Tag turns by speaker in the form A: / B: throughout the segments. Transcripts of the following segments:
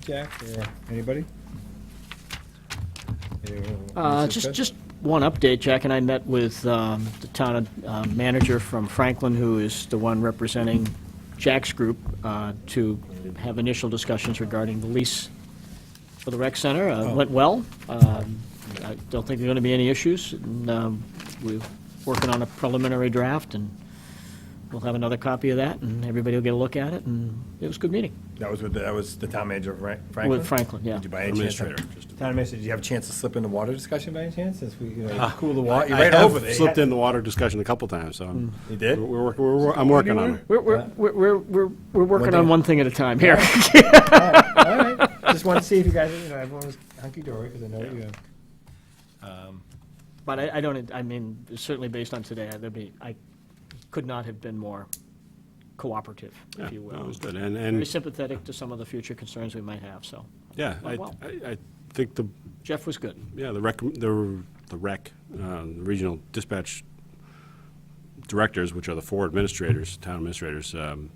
A: Jack, or anybody? Anyone want
B: Uh,
A: to
B: Just,
A: discuss?
B: just one update, Jack and I met with um, the town uh, manager from Franklin, who is the one representing Jack's group, uh, to have initial discussions regarding the lease for the rec center. Uh,
A: Oh.
B: Went well. Um, I don't think there are going to be any issues. And, um, We're working on a preliminary draft, and we'll have another copy of that, and everybody will get a look at it, and it was a good meeting.
A: That was with, the- that was the town manager of Fran- Franklin?
B: Franklin, yeah.
A: Did you by any chance-
C: Administrator, just-
A: Town administrator, did you have a chance to slip into water discussion by any chance, since we, you know, cool the water, you're
C: I
A: right
C: have
A: over there.
C: slipped in the water discussion a couple times, so. I'm-
A: You did?
C: We're, work- we're, wor- I'm working on it.
B: We're, we're, we're, we're- we're, we're working
A: thing-
B: on one thing at a time here.
A: Oh, All right, just wanted to see if you guys, you know, everyone was hunky-dory, because I know you,
B: But I, I don't, I mean, certainly based on today, there'd be, I could not have been more cooperative,
C: Yeah,
B: if you
C: that
B: will.
C: was good. And,
B: Very
C: and,
B: sympathetic to some of the future concerns we might have, so.
C: yeah, I,
B: Well,
C: I I think the,
B: Jeff was good.
C: yeah, the rec, the, the rec, um, regional dispatch directors, which are the four administrators, town administrators, um,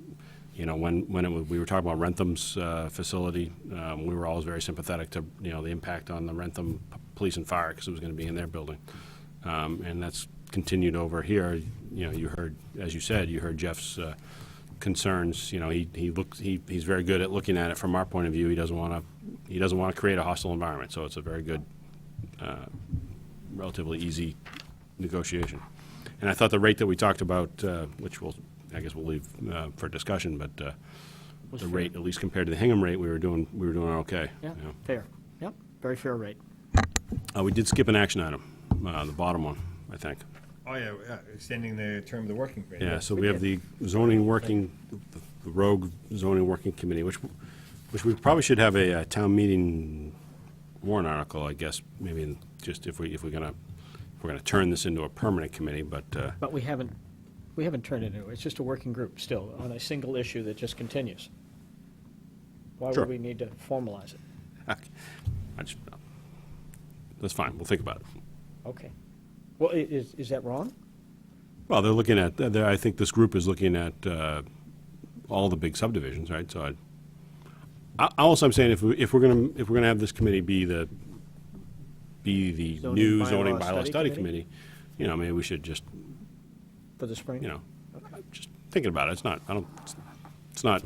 C: you know, when, when it, wa- we were talking about Rentham's uh, facility, um, we were always very sympathetic to, you know, the impact on the Rentham p- Police and Fire, because it was going to be in their building. Um, And that's continued over here, you know, you heard, as you said, you heard Jeff's uh, concerns, you know, he, he looks, he, he's very good at looking at it from our point of view, he doesn't want to, he doesn't want to create a hostile environment, so it's a very good relatively easy negotiation. And I thought the rate that we talked about, uh, which we'll, I guess we'll leave uh, for discussion, but uh,
B: Was
C: the
B: fair.
C: rate, at least compared to the Hingham rate, we were doing, we were doing okay.
B: Yeah,
C: you know.
B: fair. Yep, very fair rate.
C: Uh, We did skip an action item, uh, the bottom one, I think.
A: oh yeah, uh, extending the term of the working period.
C: Yeah, so we have the zoning working, the rogue zoning working committee, which, which we probably should have a uh, town meeting warrant article, I guess, maybe in- just if we, if we're gonna, if we're gonna turn this into a permanent committee, but uh,
B: But we haven't, we haven't turned it into, it's just a working group still on a single issue that just continues. Why
C: Sure.
B: would we need to formalize it?
C: Okay. I just, that's fine, we'll think about it.
B: Okay. Well, i- is, is that wrong?
C: Well, they're looking at, they're- I think this group is looking at uh, all the big subdivisions, right? So I, I- also I'm saying if, we- if we're going to, if we're going to have this committee be the, be the
B: Zoning
C: new
B: bylaw
C: zoning bylaw
B: study
C: study
B: committee?
C: committee, you know, maybe we should just,
B: For the spring?
C: you know, just thinking about it, it's not, I don't, it's not,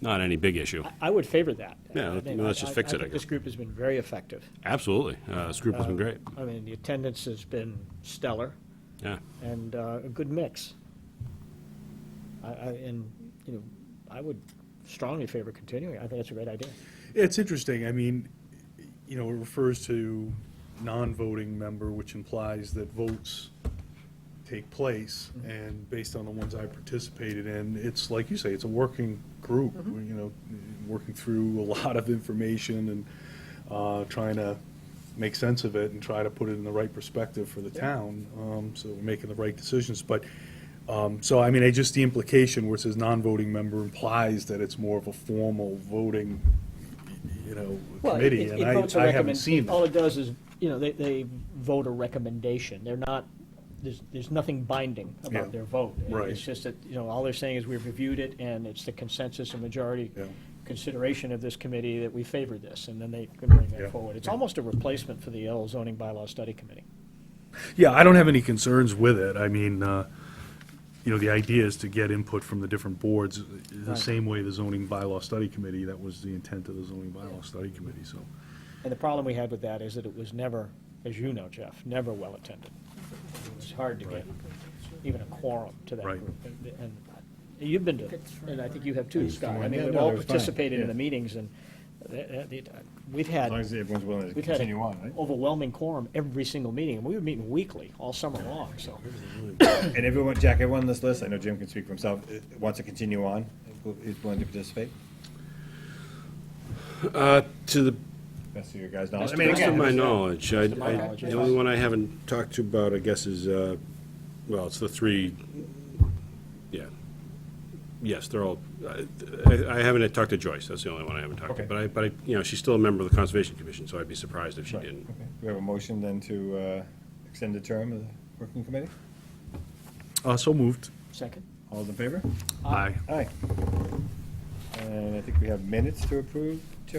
C: not any big issue.
B: I would favor that.
C: Yeah,
B: I
C: let-
B: mean,
C: let's
B: I-
C: just
B: I-
C: fix
B: I
C: it, I
B: think this
C: guess.
B: group has been very effective.
C: Absolutely, Uh, this group has been great,
B: I mean, the attendance has been stellar
C: yeah.
B: and uh, a good mix. I, I, and, you know, I would strongly favor continuing. I think that's a great idea.
D: It's interesting, I mean, you know, it refers to non-voting member, which implies that votes take place, and based on the ones I participated in, it's like you say, it's a working group, you know, working through a lot of information and uh, trying to make sense of it and try to put it in the right perspective for the town, um, so we're making the right decisions, but, um, so, I mean, I just, the implication where it says non-voting member implies that it's more of a formal voting, you know, committee, and I, I haven't seen
B: All
D: that.
B: it does is, you know, they, they vote a recommendation. They're not, there's, there's nothing binding
D: Yeah.
B: about their vote.
D: Right.
B: It's just that, you know, all they're saying is we've reviewed it and it's the consensus and majority
D: Yeah.
B: consideration of this committee that we favor this, and then they can bring
D: Yeah.
B: it forward. It's almost a replacement for the L zoning bylaw study committee.
D: Yeah, I don't have any concerns with it, I mean, uh, you know, the idea is to get input from the different boards, the
B: Right.
D: same way the zoning bylaw study committee, that was the intent of the zoning bylaw study committee, so.
B: And the problem we had with that is that it was never, as you know, Jeff, never well-attended. It was hard to get even a quorum to that
D: Right.
B: group. And- And you've been to, and I think you have too, Scott. I mean,
A: Yeah,
B: we've
A: no,
B: all
A: it was fine,
B: participated in the
A: yeah.
B: meetings, and that- that- the- uh, we've had,
A: As long as everyone's willing to
B: we've had
A: continue on, right?
B: overwhelming quorum every single meeting. And we were meeting weekly, all summer long, so.
A: And everyone, Jack, everyone on this list, I know Jim can speak for himself, uh, wants to continue on, is willing to participate?
C: Uh, To the
A: That's your guys' knowledge.
B: That's
A: I
B: the
A: mean,
B: best
A: again,
C: Best of my
A: it's-
C: knowledge, I,
B: my
C: I-
B: knowledge,
C: the
B: yes.
C: only one I haven't talked to about, I guess, is, uh, well, it's the three, yeah. Yes, they're all, I- I, I haven't talked to Joyce, that's the only one I haven't talked to.
A: Okay.
C: But I, but I, you know, she's still a member of the Conservation Commission, so I'd be surprised if she
A: Right,
C: didn't.
A: okay. Do we have a motion then to uh, extend the term of the working committee?
D: Uh, so moved.
B: Second?
A: All those in favor?
D: Aye.
A: Aye. Uh, And I think we have minutes to approve, Tiff?